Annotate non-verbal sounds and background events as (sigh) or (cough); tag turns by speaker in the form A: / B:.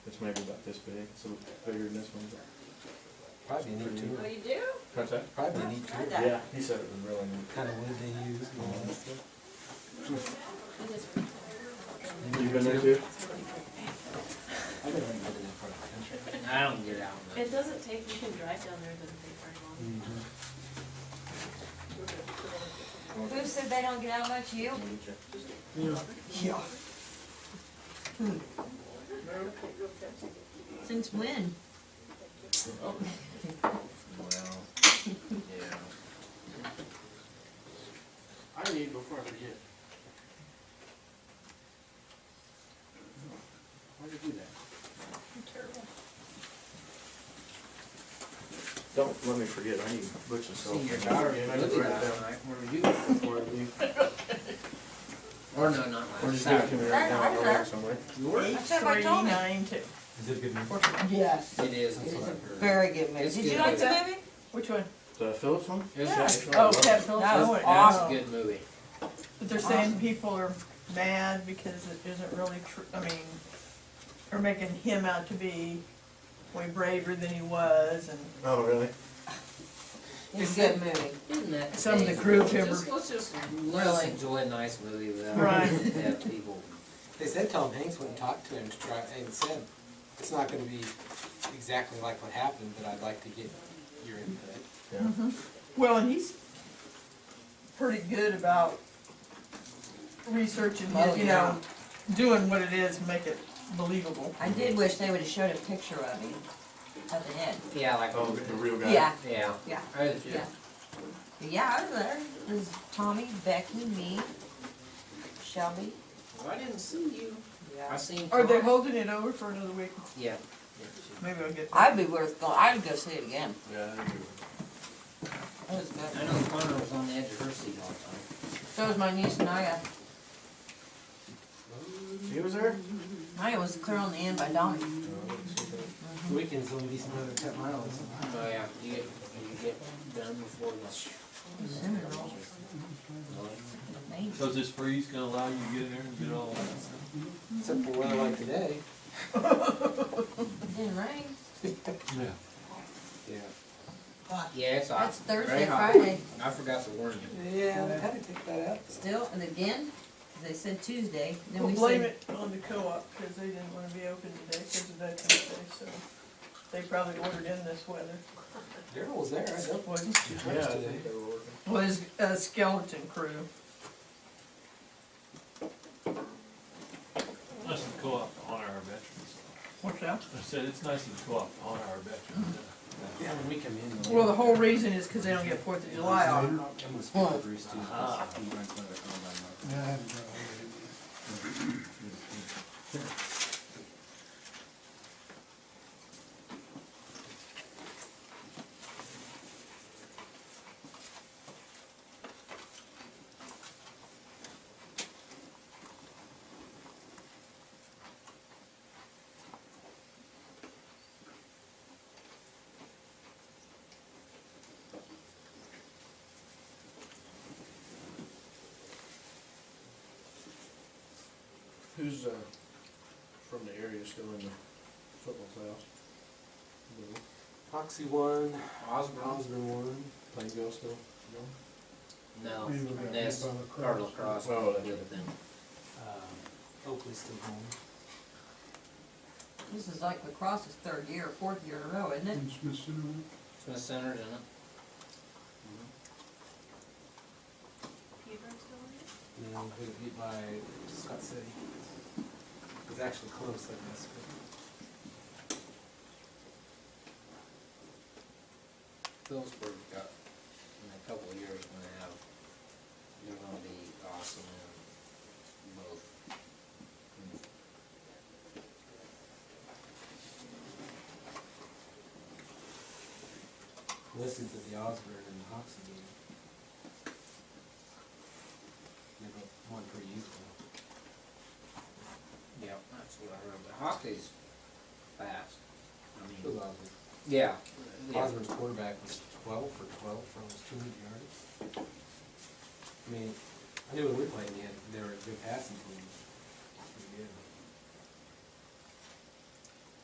A: This might be about this big, so bigger than this one.
B: Probably need two,
C: Oh, you do?
A: What's that?
B: probably need
C: Tried
B: two.
C: that.
A: Yeah, he said it was really neat.
B: Kind of wood they use. and all that stuff.
C: I just-
A: You been there too?
B: I've been in that part of the country.
D: I don't get out much.
C: It doesn't take, you can drive down there, it doesn't take very long.
E: Mm-hmm.
F: Who said they don't get out much? You?
B: Yeah.
F: Since when?
D: Well, yeah.
G: I need before I forget. Why did you do that?
A: Don't let me forget, I need butch and soap.
D: See, your daughter
A: Yeah,
D: didn't
A: I need
D: look
A: to
D: at
A: write it
D: that
A: down.
D: like, where were you before you? Or no, not
A: Or
D: last
A: just give it
D: time.
A: to me right now, I'll write it somewhere.
F: That's what I told me.
B: Is it a good one?
E: Yes,
D: It is, that's what I've heard.
E: very good movie.
D: It's
E: Did you
D: good.
E: like the
F: Maybe?
E: movie?
H: Which one?
A: The Phillips one?
D: It's like-
H: Oh, Ted Phillips.
E: That
H: That
E: one.
D: Awesome, good movie.
H: But they're saying people are mad because it isn't really true, I mean, they're making him out to be way braver than he was and
A: Oh, really?
E: It's a good movie.
D: Isn't that?
H: Some of the
D: amazing?
H: crew
D: Just-
H: members-
D: Let's just, let's
H: Really?
D: enjoy a nice movie without (laughs)
H: Right.
D: have people.
B: They said Tom Hanks went and talked to him to try, and said, it's not gonna be exactly like what happened, but I'd like to get your input.
A: Yeah.
H: Well, and he's pretty good about researching,
E: Oh,
H: you know, doing what it is, and make it believable.
E: I did wish they would've showed a picture of him, of the head.
D: Yeah, like,
A: Oh, the real guy?
E: Yeah,
D: yeah.
E: Yeah.
D: I was-
E: Yeah. yeah, I was there. It was Tommy, Becky, me, Shelby.
D: Well, I didn't see you. I
E: Yeah.
D: seen.
H: Are they
D: Tom.
H: holding it over for another week?
D: Yeah.
H: Maybe I'll get that.
E: I'd be worth going, I'd go see it again.
A: Yeah, I do.
E: It was
D: I
E: good.
D: know Connor was on the edge of her seat all the time.
E: So was my niece Naya.
A: She was there?
E: Naya was clear on the end by Donnie.
B: Mm-hmm. Weekends only be some other ten miles.
D: Oh, yeah, you get, you get done before the.
E: Amazing.
I: Cause this freeze gonna allow you to get in there and get all that.
B: Except for weather like today.
E: It didn't rain.
I: Yeah.
B: Yeah.
D: Yeah, it's hot.
E: That's Thursday,
D: Very hot.
E: Friday.
D: I forgot to warn you.
B: Yeah, they had to take that out.
E: Still, and again, they said Tuesday, then
H: We'll
E: we
H: blame
E: said,
H: it on the co-op, because they didn't wanna be open today because of that Tuesday, so they probably ordered in this weather.
B: Daryl was there, I don't, wasn't she
A: Yeah, I
B: today?
A: think they were working.
H: Was a skeleton crew.
I: Nice and co-op to honor our veterans.
H: What's that?
I: I said, it's nice and co-op to honor our veterans.
B: Yeah, when we come in.
H: Well, the whole reason is because they don't get Fourth of July off.
B: I'm gonna speak to Bruce too.
I: Ah.
B: He runs one of the combine markets.
A: Who's, uh, from the area still in the football playoffs? No.
B: Oxy one,
D: Osborne?
B: Osborne one.
A: Playing girls still? No?
D: No, that's Cardinal Cross.
A: Oh, that's
D: Good
A: right.
D: thing.
B: Um, Oakley's still home.
E: this is like lacrosse's third year or fourth year in a row, isn't it?
D: Smith Center's in it. Mm-hmm.
C: Hebron's still
B: No, we got beat by Scott City. It's actually close, I guess.
D: Phillipsburg got, in a couple of years, gonna have, they're gonna be awesome in both.
B: but Listen to the Osborne and the Hawks game. They got one per youthful.
D: Yeah, that's what I remember. Hockey's fast. I
B: It was
D: mean,
B: Osborne.
D: yeah. yeah.
B: Osborne's quarterback was twelve for twelve for almost two hundred yards. I mean, I knew when we played, they had, they were a good passing team.